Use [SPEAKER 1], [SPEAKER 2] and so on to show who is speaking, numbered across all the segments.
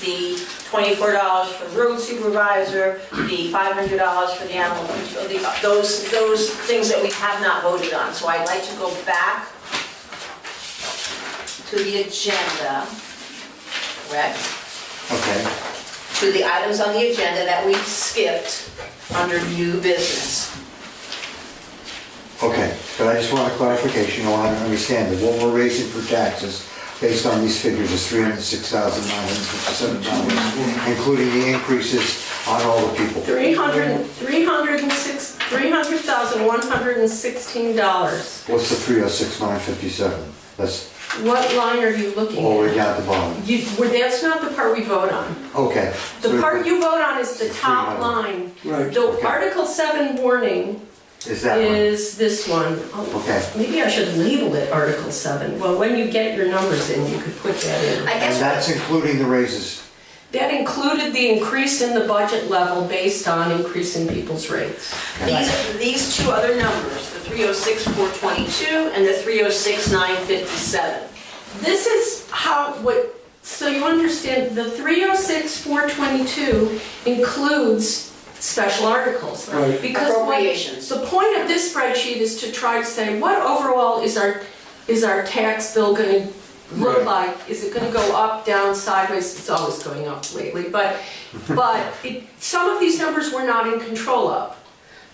[SPEAKER 1] the twenty-four dollars for road supervisor, the five hundred dollars for the animal control, the- those, those things that we have not voted on. So I'd like to go back to the agenda, correct?
[SPEAKER 2] Okay,
[SPEAKER 1] to the items on the agenda that we skipped under new business.
[SPEAKER 2] okay, but I just want a clarification, I want to understand that what we're raising for taxes based on these figures is three hundred six thousand nine hundred fifty-seven dollars, including the increases on all the people.
[SPEAKER 3] 300, 306, $300,116.
[SPEAKER 2] What's the three oh six nine fifty-seven? That's
[SPEAKER 3] What line are you looking
[SPEAKER 2] all the way
[SPEAKER 3] at?
[SPEAKER 2] down at the bottom.
[SPEAKER 3] You, well, that's not the part we vote on.
[SPEAKER 2] Okay.
[SPEAKER 3] The
[SPEAKER 2] so-
[SPEAKER 3] part you vote on is the top
[SPEAKER 2] 300.
[SPEAKER 3] line.
[SPEAKER 4] Right.
[SPEAKER 3] The
[SPEAKER 2] Okay.
[SPEAKER 3] Article 7 warning
[SPEAKER 2] Is that one?
[SPEAKER 3] is this one. Oh,
[SPEAKER 2] Okay.
[SPEAKER 3] Maybe I should label it Article 7. Well, when you get your numbers in, you could put that in.
[SPEAKER 1] I
[SPEAKER 2] And that's
[SPEAKER 1] guess,
[SPEAKER 2] including the raises.
[SPEAKER 3] That included the increase in the budget level based on increase in people's rates.
[SPEAKER 1] these, these two other numbers, the 306,422 and the 306,957.
[SPEAKER 3] This is how, what, so you understand, the 306, 422 includes special articles.
[SPEAKER 4] Right.
[SPEAKER 3] Because what-
[SPEAKER 1] Appropriations.
[SPEAKER 3] The point of this spreadsheet is to try to say, what overall is our, is our tax bill gonna look
[SPEAKER 4] Right.
[SPEAKER 3] like? Is it gonna go up, down, sideways? It's always going up lately, but, but it- some of these numbers we're not in control of.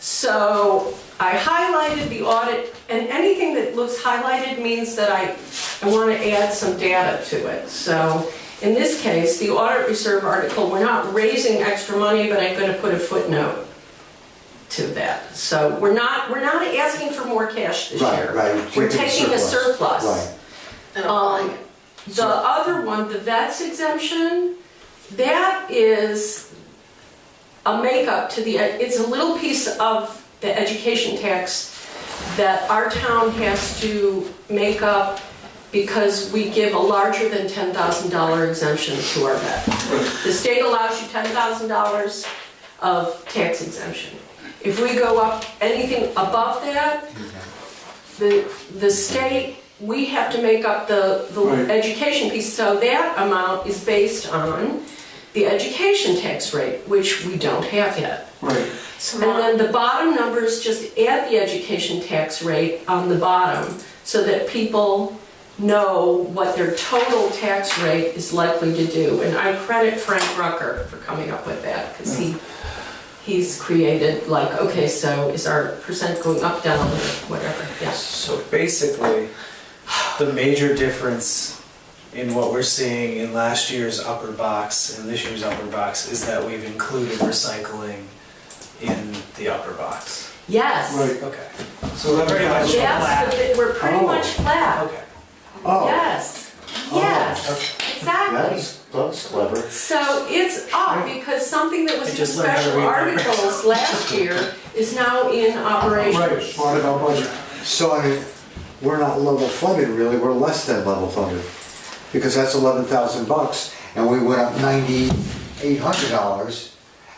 [SPEAKER 3] So I highlighted the audit, and anything that looks highlighted means that I, I want to add some data to it. So in this case, the audit reserve article, we're not raising extra money, but I'm going to put a footnote to that. So we're not, we're not asking for more cash this
[SPEAKER 2] Right,
[SPEAKER 3] year.
[SPEAKER 2] right.
[SPEAKER 3] We're taking a
[SPEAKER 2] Right.
[SPEAKER 3] surplus.
[SPEAKER 1] And applying
[SPEAKER 3] Um,
[SPEAKER 1] it.
[SPEAKER 3] The other one, the vet's exemption, that is a makeup to the, it's a little piece of the education tax that our town has to make up because we give a larger than $10,000 exemption to our vet. The state allows you $10,000 of tax exemption. If we go up anything above that, the, the state, we have to make up the, the
[SPEAKER 4] Right.
[SPEAKER 3] education piece. So that amount is based on the education tax rate, which we don't have yet.
[SPEAKER 4] Right.
[SPEAKER 3] And then the bottom numbers just add the education tax rate on the bottom so that people know what their total tax rate is likely to do. And I credit Frank Rucker for coming up with that because he, he's created like, okay, so is our percent going up, down, or whatever, yes.
[SPEAKER 5] So basically, the major difference in what we're seeing in last year's upper box and this year's upper box is that we've included recycling in the upper box.
[SPEAKER 3] Yes,
[SPEAKER 4] Right.
[SPEAKER 5] Okay. So we're pretty much
[SPEAKER 3] yes,
[SPEAKER 5] flat.
[SPEAKER 3] but they- we're pretty
[SPEAKER 2] Oh.
[SPEAKER 3] much flat.
[SPEAKER 5] Okay.
[SPEAKER 2] Oh,
[SPEAKER 3] Yes, yes, exactly.
[SPEAKER 2] that's, that's clever.
[SPEAKER 3] So it's up because something that was
[SPEAKER 5] I
[SPEAKER 3] in
[SPEAKER 5] just learned how to
[SPEAKER 3] special
[SPEAKER 5] read numbers.
[SPEAKER 3] articles last year is now in
[SPEAKER 4] Right,
[SPEAKER 3] operation.
[SPEAKER 4] smart about budget.
[SPEAKER 2] So I mean, we're not level funded really, we're less than level funded. Because that's eleven thousand bucks and we went up ninety-eight hundred dollars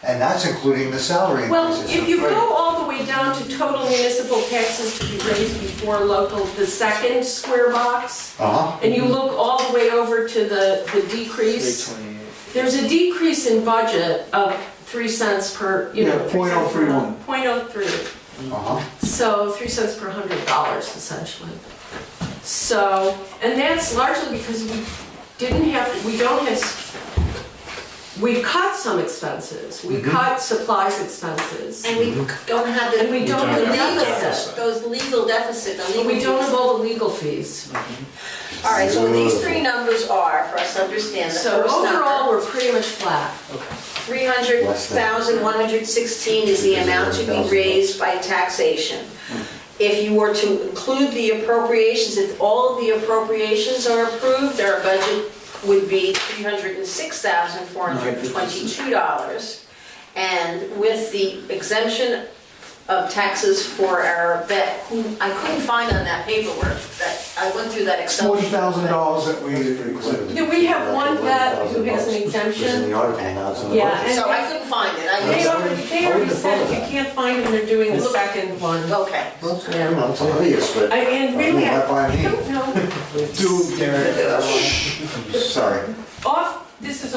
[SPEAKER 2] and that's including the salary
[SPEAKER 3] Well,
[SPEAKER 2] increases.
[SPEAKER 3] if you go all the way down to total municipal taxes to be raised before local, the second square box,
[SPEAKER 2] Uh-huh,
[SPEAKER 3] and you look all the way over to the, the decrease,
[SPEAKER 5] 328.
[SPEAKER 3] there's a decrease in budget of three cents per, you know.
[SPEAKER 4] Yeah,
[SPEAKER 3] three cents per-
[SPEAKER 4] 0.031.
[SPEAKER 3] 0.03.
[SPEAKER 2] uh-huh.
[SPEAKER 3] So three cents per hundred dollars essentially. So, and that's largely because we didn't have, we don't have, we cut some expenses. We cut supplies expenses.
[SPEAKER 1] And we don't have the.
[SPEAKER 3] And we don't have
[SPEAKER 1] the
[SPEAKER 3] a
[SPEAKER 1] deficit,
[SPEAKER 3] deficit.
[SPEAKER 1] those legal deficit, the legal.
[SPEAKER 3] We don't
[SPEAKER 1] fees.
[SPEAKER 3] have all the legal fees.
[SPEAKER 1] All right, so these three numbers are, for us to understand, the
[SPEAKER 3] So
[SPEAKER 1] first number.
[SPEAKER 3] overall, we're pretty much flat.
[SPEAKER 1] 300,116 is the amount to be raised by taxation. If you were to include the appropriations, if all of the appropriations are approved, our budget would be $306,422. And with the exemption of taxes for our vet, who I couldn't find on that paperwork, that, I went through that Excel.
[SPEAKER 4] Forty
[SPEAKER 1] sheet.
[SPEAKER 4] thousand dollars that we included.
[SPEAKER 3] Yeah, we have one vet who has an
[SPEAKER 2] $11,000 It's in
[SPEAKER 3] exemption.
[SPEAKER 2] the article now, it's in the
[SPEAKER 3] Yeah,
[SPEAKER 2] budget.
[SPEAKER 1] So I couldn't find it, I
[SPEAKER 3] They
[SPEAKER 1] just,
[SPEAKER 3] already, they already said you can't find them, they're doing the second one.
[SPEAKER 1] okay.
[SPEAKER 2] You
[SPEAKER 3] Yeah.
[SPEAKER 2] know, it's obvious, but.
[SPEAKER 3] I- And really, I
[SPEAKER 2] Right by me.
[SPEAKER 3] don't know,
[SPEAKER 5] Dude,
[SPEAKER 2] Sorry.
[SPEAKER 3] off, this is